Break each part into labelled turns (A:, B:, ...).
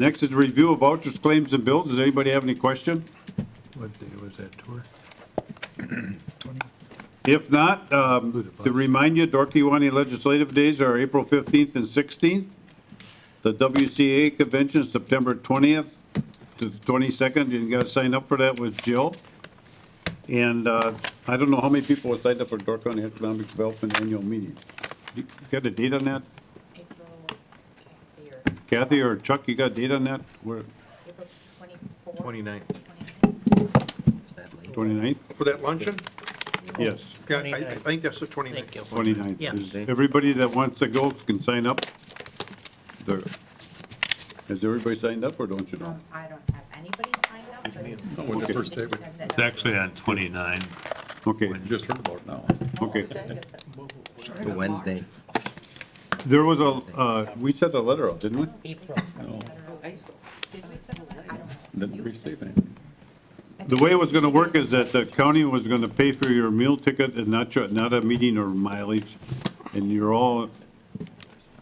A: Next is review of vouchers, claims, and bills. Does anybody have any question?
B: What day was that tour?
A: If not, um, to remind you, Dorkey Legislative Days are April 15th and 16th. The WCA Convention is September 20th to the 22nd. You got to sign up for that with Jill. And uh, I don't know how many people will sign up for Dork County Economic Development Annual Meeting. You you got a date on that?
C: April, okay, year,
A: Kathy or Chuck, you got a date on that? Where,
C: April 24th.
D: 29th.
C: 29th.
A: 29th?
E: For that luncheon?
A: Yes,
E: Yeah, I, I think that's the 29th.
A: 29th.
F: Yeah.
A: Is Everybody that wants to go can sign up. There- Has everybody signed up or don't you know?
C: Um, I don't have anybody signed up, but. it's-
A: Okay.
E: First day, we
C: said that-
B: It's actually on 29.
A: Okay,
E: just heard about it now.
A: okay.
D: For Wednesday.
A: There was a, uh, we sent a letter out, didn't we?
F: April.
C: Did we send one? I don't know.
E: Didn't receive anything.
A: The way it was gonna work is that the county was gonna pay for your meal ticket and not your, not a meeting or mileage, and you're all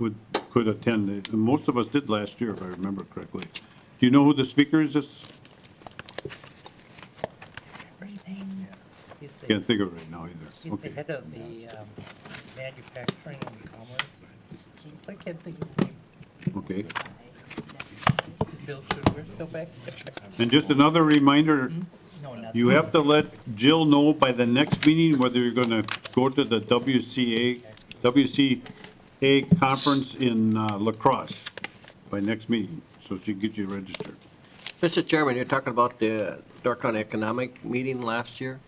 A: would, could attend. And Most of us did last year, if I remember correctly. Do you know who the speaker is this?
F: He's the,
A: Can't think of it right now either.
F: he's the
A: Okay.
F: head of the um, manufacturing and commerce. I can't think of his name.
A: Okay.
F: Bill Sugar, go back.
A: And just another reminder,
F: No, not.
A: You have to let Jill know by the next meeting whether you're gonna go to the WCA, WCA conference in uh, La Crosse by next meeting, so she can get you registered.
G: Mr. Chairman, you're talking about the uh, Dark Economic meeting last year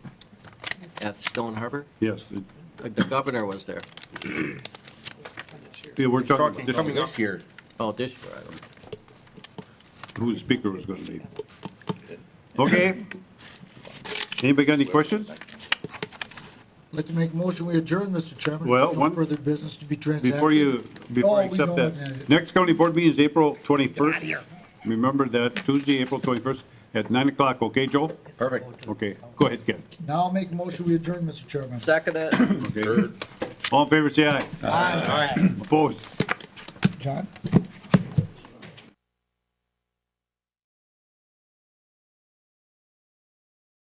G: at Stone Harbor? Uh,
A: Yes, it-
G: The governor was there.
A: yeah, we're talking
D: Talking
A: about
D: coming
A: this,
D: up here.
G: Oh, this year, I don't.
A: who the speaker was gonna be. Okay. Anybody got any questions?
H: I'd like to make a motion, we adjourn, Mr. Chairman.
A: Well,
H: No
A: one-
H: further business to be transacted.
A: Before you, before I
H: Oh, we
A: accept
H: know
A: that,
H: that.
A: next county board meeting is April 21st. Remember that, Tuesday, April 21st at 9 o'clock, okay, Joel?
D: Perfect.
A: Okay, go ahead, Ken.
H: Now I'll make a motion, we adjourn, Mr. Chairman.
G: Second it.
A: Okay. All in favor, say aye.
F: All right.
A: Opposed?
H: John?